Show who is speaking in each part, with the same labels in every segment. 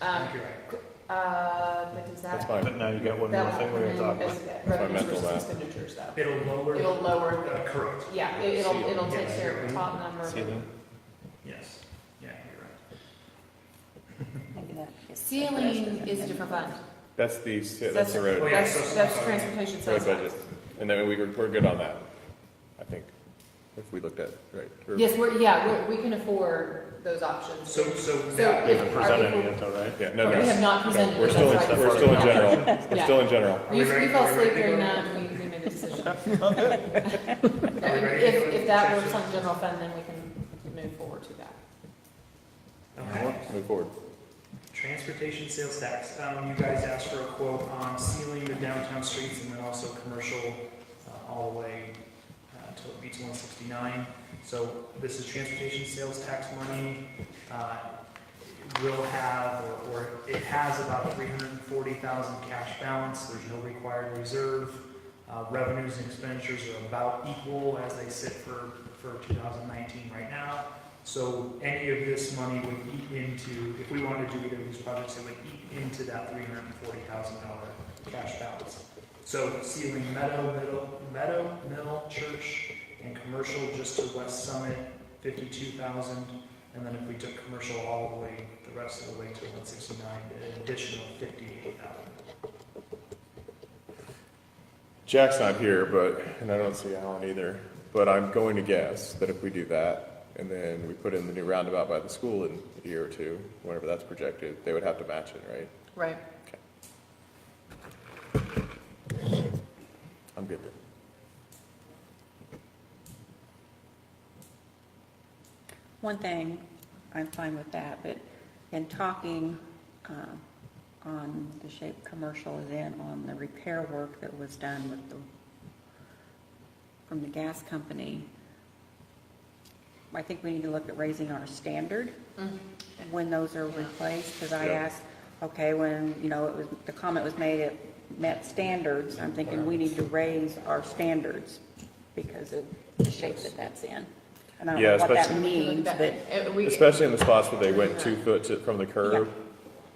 Speaker 1: Um,
Speaker 2: think you're right.
Speaker 1: uh, what does that?
Speaker 3: That's my,
Speaker 4: But now you got one
Speaker 1: that
Speaker 4: more thing we gotta talk
Speaker 1: one,
Speaker 4: about.
Speaker 1: is that
Speaker 3: That's my
Speaker 1: revenues
Speaker 3: mental
Speaker 1: versus
Speaker 3: math.
Speaker 1: expenditures though.
Speaker 2: It'll lower.
Speaker 1: It'll lower,
Speaker 2: Uh, Correct.
Speaker 1: yeah, it- it'll, it'll take
Speaker 2: Yeah.
Speaker 1: care of the top
Speaker 4: See you
Speaker 1: number.
Speaker 4: then.
Speaker 2: Yes, yeah, you're right.
Speaker 1: Ceiling is a different fund.
Speaker 3: that's the, ci- that's the
Speaker 2: Oh,
Speaker 3: road,
Speaker 2: yeah,
Speaker 1: That's,
Speaker 2: so-
Speaker 1: that's transportation
Speaker 3: road
Speaker 1: sales
Speaker 3: budget.
Speaker 1: tax.
Speaker 3: And then we, were- we're good on that, I think, if we looked at, it, right? Or-
Speaker 1: Yes, we're, yeah, we, we can afford those options.
Speaker 2: So, so
Speaker 1: So
Speaker 4: We
Speaker 2: now,
Speaker 1: if-
Speaker 4: haven't presented any yet, though, right?
Speaker 3: Yeah, no,
Speaker 1: But we have
Speaker 3: no,
Speaker 1: not
Speaker 3: no,
Speaker 1: presented.
Speaker 3: we're
Speaker 1: it,
Speaker 3: still, in-
Speaker 1: that's right.
Speaker 3: we're still in general, we're
Speaker 1: Yeah.
Speaker 3: still in general.
Speaker 1: You, you fell asleep during that, we, we made a decision. If, if that works on general fund, then we can move forward to that.
Speaker 2: okay.
Speaker 3: Move forward.
Speaker 2: Transportation sales tax, um, you guys asked for a quote on sealing the downtown streets and then also commercial, uh, all the way, uh, to Beach one sixty-nine. So this is transportation sales tax money, uh, it will have, or, or it has about three hundred and forty thousand cash balance, there's no required reserve. Uh, revenues and expenditures are about equal as they sit for, for two thousand nineteen right now. So any of this money would eat into, if we wanted to do either of these projects, it would eat into that three hundred and forty thousand dollar cash balance. So ceiling Meadow, Middle, Meadow, Mill, Church, and Commercial just to West Summit, fifty-two thousand. And then if we took Commercial all the way, the rest of the way to one sixty-nine, an additional fifty-eight thousand.
Speaker 3: Jack's not here, but, and I don't see Alan either, but I'm going to guess that if we do that, and then we put in the new roundabout by the school in a year or two, whenever that's projected, they would have to match it, right?
Speaker 1: Right.
Speaker 3: I'm good.
Speaker 5: One thing, I'm fine with that, but in talking um, on the shape commercial, then on the repair work that was done with the, from the gas company, I think we need to look at raising our standard
Speaker 1: Mm-hmm.
Speaker 5: when those are replaced, because I
Speaker 3: Yeah.
Speaker 5: asked, okay, when, you know, it was, the comment was made, it met standards, I'm thinking we need to raise our standards because of the shape that that's in. And I don't
Speaker 3: Yeah,
Speaker 5: know what that
Speaker 3: especially-
Speaker 5: means, but
Speaker 3: Especially in the spots where they went two foot to, from the curb,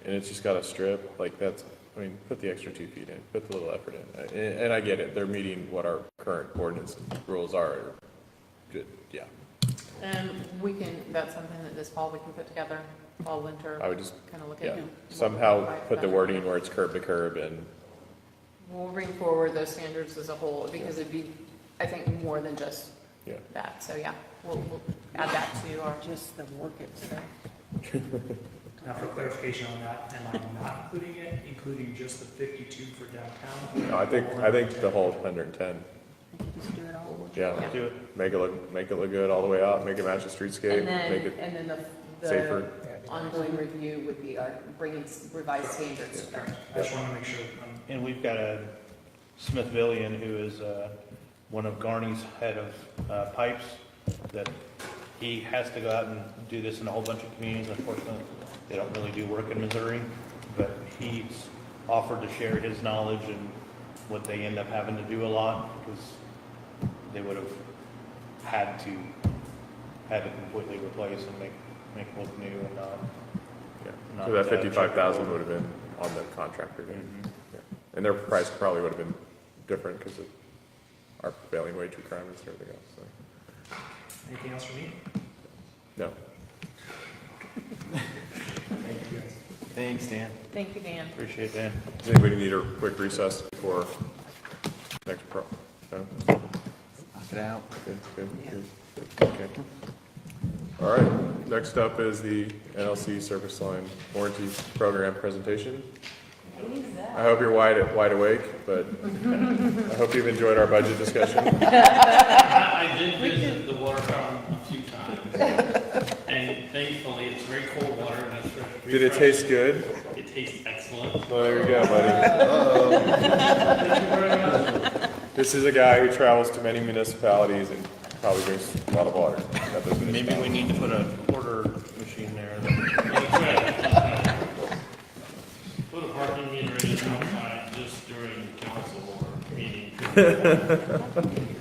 Speaker 3: and it's just got a strip, like that's, I mean, put the extra two feet in, put the little effort in. And, and I get it, they're meeting what our current ordinance rules are, good, yeah.
Speaker 1: And um, we can, that's something that this fall we can put together, fall, winter,
Speaker 3: I would just,
Speaker 1: kind of look
Speaker 3: yeah,
Speaker 1: at.
Speaker 3: somehow put the wording where it's curb to curb and
Speaker 1: We'll bring forward those standards as a whole, because it'd be, I think, more than just
Speaker 3: Yeah.
Speaker 1: that, so yeah, we'll, we'll add that to our.
Speaker 5: just the work itself.
Speaker 2: Now, for clarification on that, am I not including it, including just the fifty-two for downtown?
Speaker 3: No, I think, I think the whole hundred and ten,
Speaker 5: Just do it all.
Speaker 3: yeah.
Speaker 4: Do it.
Speaker 3: Make it look, make it look good all the way out, make it match the streetscape,
Speaker 1: And then,
Speaker 3: make it
Speaker 1: and then the,
Speaker 3: safer.
Speaker 1: the ongoing review would be our bringing revised standards.
Speaker 2: Correct. I just want to make sure I'm
Speaker 4: And we've got a Smith Villian who is uh, one of Garney's head of uh, pipes, that he has to go out and do this in a whole bunch of communities. Unfortunately, they don't really do work in Missouri, but he's offered to share his knowledge and what they end up having to do a lot because they would have had to, had to completely replace and make, make look new and not.
Speaker 3: Yeah.
Speaker 4: Not
Speaker 3: So that
Speaker 4: that
Speaker 3: fifty-five thousand
Speaker 4: checkable.
Speaker 3: would have been on the contractor then. Yeah. And their price probably would have been different because of our prevailing wage requirements and everything else, so,
Speaker 2: Anything else for me?
Speaker 3: no.
Speaker 2: Thank you, guys.
Speaker 4: Thanks, Dan.
Speaker 1: Thank you, Dan.
Speaker 4: Appreciate that.
Speaker 3: Does anybody need a quick recess before next pro? No?
Speaker 6: Knock it out.
Speaker 3: Good, good, good. Okay. All right, next up is the NLC Service Line Warranty Program presentation. I hope you're wide, wide awake, but I hope you've enjoyed our budget discussion.
Speaker 7: I I did visit the water fountain a few times, and thankfully, it's very cold water, and it's very.
Speaker 3: Did it taste good?
Speaker 7: refreshing. It tastes excellent.
Speaker 3: Well, there you go, buddy. This is a guy who travels to many municipalities and probably drinks a lot of water. at those
Speaker 4: Maybe we
Speaker 3: municipalities.
Speaker 4: need to put a quarter machine there.
Speaker 7: Put a parking meter in outside just during council or meeting. um, Um,